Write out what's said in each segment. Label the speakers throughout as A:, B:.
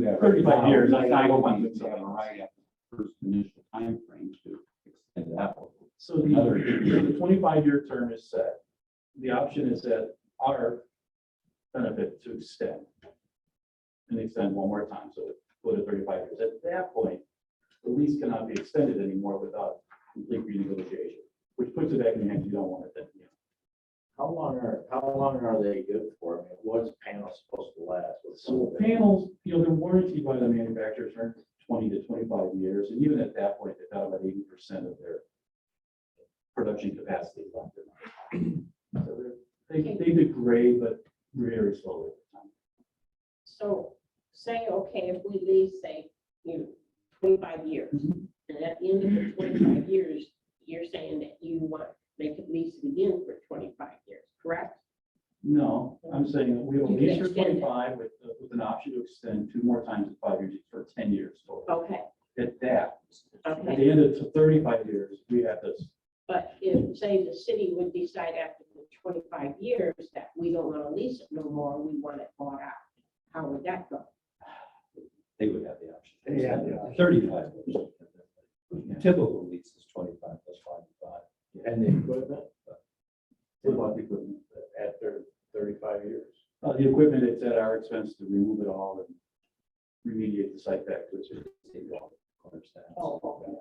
A: Yeah.
B: Thirty-five years, I
A: I
B: think.
A: hope I'm gonna have a right after the first initial timeframe to extend that. one.
B: So the,
A: Another-
B: so the twenty-five year term is set. The option is at our benefit to extend. And extend one more time, so go to thirty-five years. At that point, the lease cannot be extended anymore without complete renegotiation, which puts it back in hands you don't want it then.
C: How long are, how long are they good for? I mean, what is panel supposed to last? What's some
B: So
C: of it?
B: panels, you know, they're warranted by the manufacturer for twenty to twenty-five years, and even at that point, they've got about eighty percent of their production capacity left in them. So they're- They, they degrade, but very slowly.
D: So say, okay, if we lease, say, you know, twenty-five years,
B: Mhm.
D: and at the end of the twenty-five years, you're saying that you want, they could lease it again for twenty-five years, correct?
B: No, I'm saying that we will
D: You can
B: lease for
D: extend it.
B: twenty-five with, uh, with an option to extend two more times in five years for ten years total.
D: Okay,
B: At that, at
D: okay,
B: the end of thirty-five years, we have this
D: but if, say, the city would decide after the twenty-five years that we don't want to lease it no more, we want it bought out, how would that go?
E: They would have the option.
B: They have the
E: Thirty-five. years. Typical lease is twenty-five plus five.
C: And the equipment?
B: What about the equipment?
C: After thirty-five years?
B: Uh, the equipment, it's at our expense to remove it all and remediate the site back to its.
D: Oh, okay.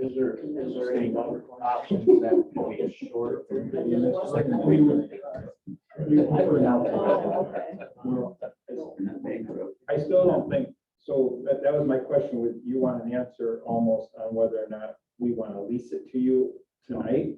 C: Is there, is there any other options that can be a short?
B: We would- we would-
D: Oh, okay.
F: I still don't think, so that, that was my question, with you want an answer almost on whether or not we want to lease it to you tonight?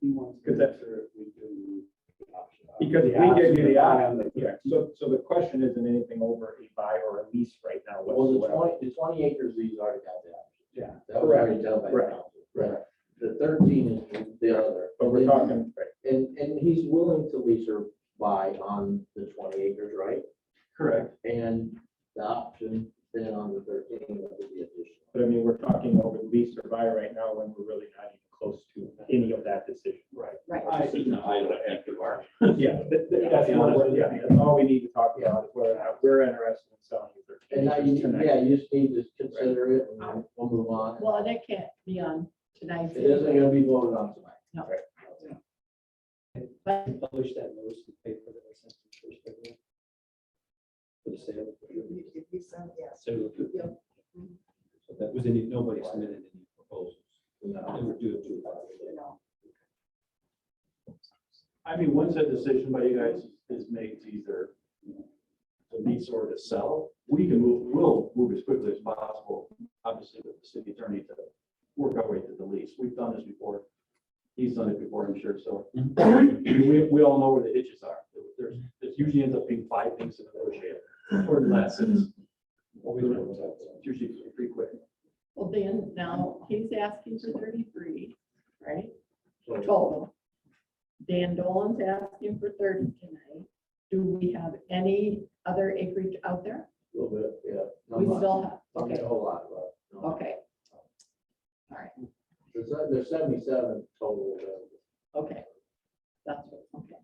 A: He wants
F: Because that's-
A: sure we do the option.
F: Because we give you the option, yeah, so, so the question isn't anything over a buy or a lease right now
C: Well, the
F: whatsoever.
C: twenty, the twenty acres lease already got that.
F: Yeah.
C: That was already done by
F: Correct.
C: council. Right. The thirteen is the other.
F: But we're talking,
C: And, and he's willing to lease or buy on the twenty acres, right?
B: Correct.
C: And the option then on the thirteen would be additional.
F: but I mean, we're talking over lease or buy right now when we're really not even close to any of that decision. Right.
D: Right.
B: I think not, I don't think you are.
F: Yeah, that- that- that's, what we're- yeah, that's all we need to talk about, is whether or not we're interested in selling the
C: And
F: thirteen
C: now
F: acres
C: you,
F: tonight.
C: yeah, you just need to consider it and then we'll move on.
G: Well, that can't be on tonight's.
C: It isn't gonna be voted on tonight.
E: Publish that notice in paper that I sent to first. everyone. For the sale. So so that was any, nobody submitted any proposals. They would do it to a buyer.
B: I mean, once that decision by you guys is made to either, you know, to lease or to sell, we can move, we'll move as quickly as possible, obviously with the city attorney to work our way to the lease. We've done this before. He's done it before, I'm sure, so.
E: Mm-hmm.
B: We, we all know where the hitches are. There's, there's usually ends up being five things to negotiate or less.
E: Mm-hmm.
B: and It's
E: Always works out.
B: it's usually pretty quick.
G: Well, then now he's asking for thirty-three, right?
C: So-
G: Total. Dan Dolan's asking for thirty tonight. Do we have any other acreage out there?
C: A little bit, yeah. Not
G: We
C: much.
G: still have,
C: Not
G: okay,
C: a whole lot, but. no.
G: okay,
C: There's, there's seventy-seven total available.
G: okay. That's what, okay.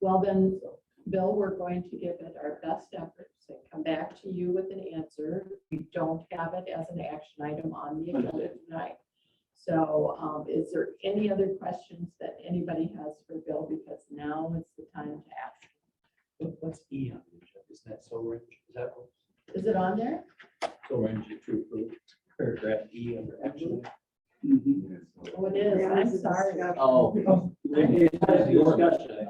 G: Well, then, Bill, we're going to give it our best efforts and come back to you with an answer. We don't have it as an action item on the agenda tonight. So um, is there any other questions that anybody has for Bill? Because now is the time to ask.
E: What- What's E on the agenda? Is that so orange? Is that
G: Is it on there?
E: so orange to approve? Paragraph E under action. uh,
G: Oh, it is. I'm sorry.
C: Oh.
E: Discussion.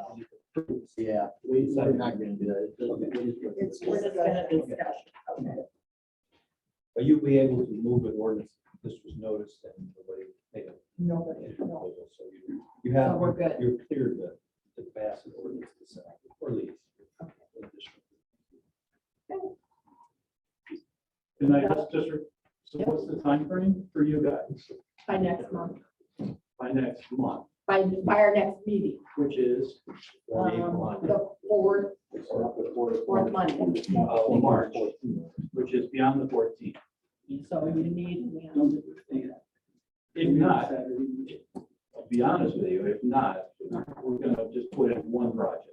C: Yeah, we, we're not gonna do that. It's just-
G: It's just a discussion.
E: But you'll be able to move an ordinance, if this was noticed and nobody made a.
G: Nobody. no.
E: proposal, So you, you
G: So
E: have,
G: Oh, we're good.
E: you're clear to, to pass an ordinance to sign, or lease.
B: And I just, just, re- so what's the time frame for you guys
G: By next month,
B: by next month,
G: by, by our next meeting,
B: which is
G: um, the fourth, fourth Monday.
B: uh, March, which is beyond the fourteenth.
G: So you need, we have
A: Don't
G: to
A: do it.
B: If not, I'll be honest with you, if not, we're gonna just put in one project,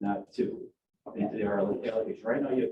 B: not two, into the allocation. Right now, you have